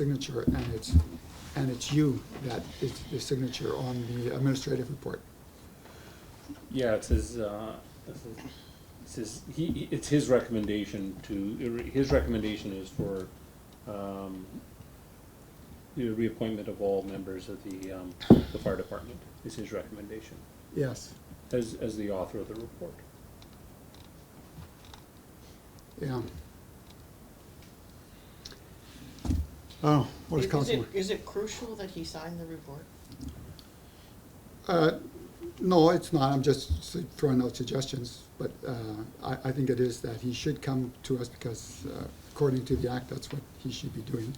signature, and it's, and it's you that is the signature on the administrative report. Yeah, it's his, uh, this is- it's his, he, he- it's his recommendation to, his recommendation is for, um, the reappointment of all members of the, um, the fire department, is his recommendation, Yes, as, as the author of the report. yeah. Oh, what is Is- is it- Councilor? Is it crucial that he sign the report? Uh, No, it's not, I'm just s- throwing out suggestions, but uh, I, I think it is that he should come to us because uh, according to the act, that's what he should be doing,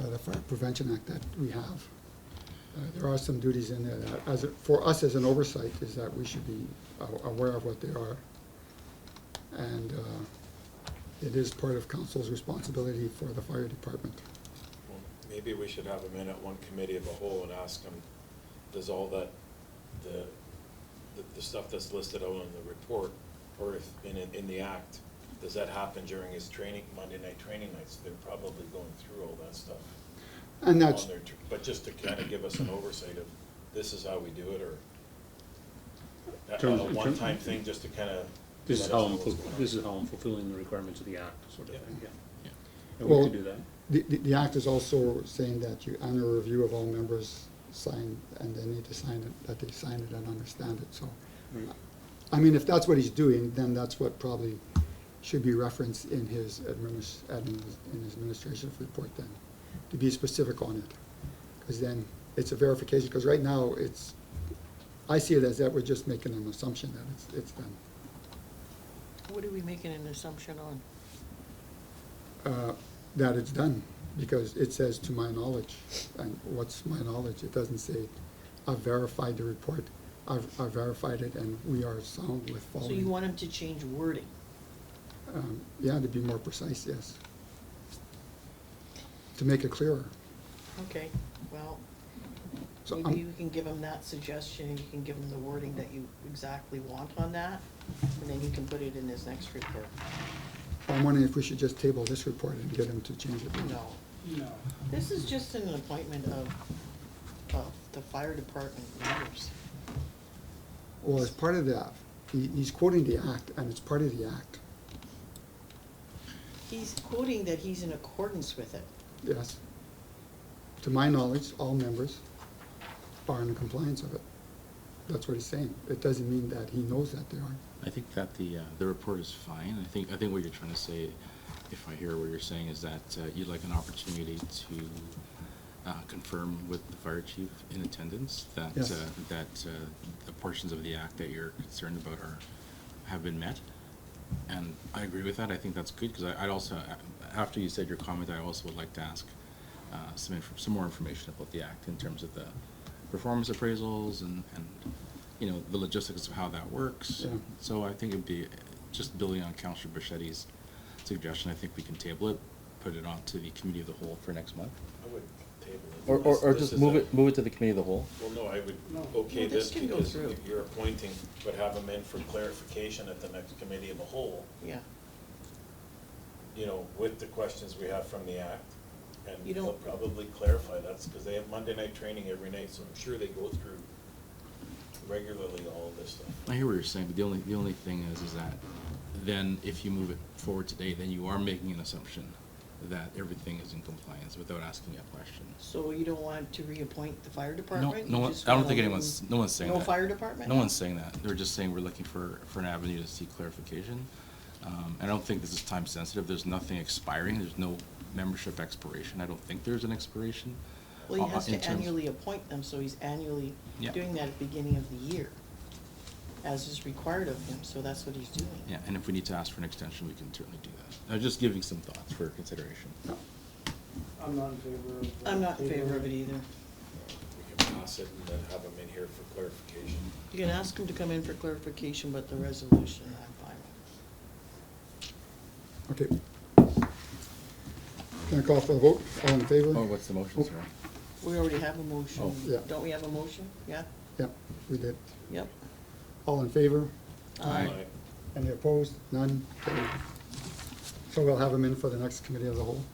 uh, the Fire Prevention Act that we have. Uh, There are some duties in there that, as, a- for us as an oversight, is that we should be a- aware of what they are. And uh, it is part of council's responsibility for the fire department. Well, Maybe we should have them in at one committee of a whole and ask them, does all that, the, the- the stuff that's listed out in the report, or if, in, in- in the act, does that happen during his training, Monday night training nights? They're probably going through all that stuff. And on that's, their tr- But just to kind of give us an oversight of, this is how we do it, or that- Terms- a in term- one-time thing, just to kind of. This is how I'm, ful- this is how I'm fulfilling the requirements of the act, sort of thing, yeah. And we Well- could do that. The, the, the act is also saying that you honor a review of all members sign, and they need to sign it, that they sign it and understand it, so. Right. I mean, if that's what he's doing, then that's what probably should be referenced in his adminis, admin, in his administrative report then, to be specific on it. Because then it's a verification, because right now it's, I see it as that we're just making an assumption that it's, it's done. What are we making an assumption on? uh, that it's done, because it says to my knowledge. And what's my knowledge? It doesn't say, I've verified the report, I've, I've verified it, and we are sound with So following. you want him to change wording? Um, Yeah, to be more precise, yes. To make it clearer. Okay, well, So maybe I'm, you can give him that suggestion, and you can give him the wording that you exactly want on that, and then he can put it in his next report. I'm wondering if we should just table this report and get him to change it. No, No. this is just an appointment of, of the fire department members. Well, it's part of that, he, he's quoting the act, and it's part of the act, He's quoting that he's in accordance with it. yes. To my knowledge, all members are in compliance of it. That's what he's saying. It doesn't mean that he knows that they aren't. I think that the, uh, the report is fine. I think, I think what you're trying to say, if I hear what you're saying, is that uh, you'd like an opportunity to uh, confirm with the fire chief in attendance that, Yes. uh, that uh, the portions of the act that you're concerned about are, have been met. And I agree with that. I think that's good, because I, I'd also, after you said your comment, I also would like to ask uh, some, inf- some more information about the act in terms of the performance appraisals and, and, you know, the logistics of how that works. Yeah. So I think it'd be, just building on Counselor Bichetti's suggestion, I think we can table it, put it on to the committee of the whole for next month. I would table it. Or, or, This- or this just is move a- it, move it to the committee of the whole. Well, no, I would No. okay No, this this can go because through. you're appointing, but have them in for clarification at the next committee of the whole, Yeah, you know, with the questions we have from the act. And You they'll don't- probably clarify that, because they have Monday night training every night, so I'm sure they go through regularly all of this stuff. I hear what you're saying, but the only, the only thing is, is that then if you move it forward today, then you are making an assumption that everything is in compliance without asking a question. so you don't want to reappoint the fire No, department? no, You one- just I don't wanna think let anyone's, him- no one's saying No that. fire department? No one's saying that. They're just saying we're looking for, for an avenue to seek clarification. Um, I don't think this is time sensitive. There's nothing expiring. There's no membership expiration. I don't think there's an expiration. Well, uh, he has in to terms- annually appoint them, so he's annually Yeah. doing that at the beginning of the year, as is required of him, so that's what he's doing. Yeah, and if we need to ask for an extension, we can certainly do that. I'm just giving some thoughts for consideration. I'm not in favor of. uh, I'm not in favor of it tabling either. We can pass it and then have them in here for clarification. You can ask him to come in for clarification, but the resolution, I'm fine with. Okay. Can I call for a vote? All in Oh, favor? what's the motion, sir? We already have a motion. Oh. Yeah. Don't we have a motion? Yeah? Yeah, we did. Yep. Um, All in favor? Aye. Aye. Any opposed? None? Carried. So we'll have them in for the next committee of the whole.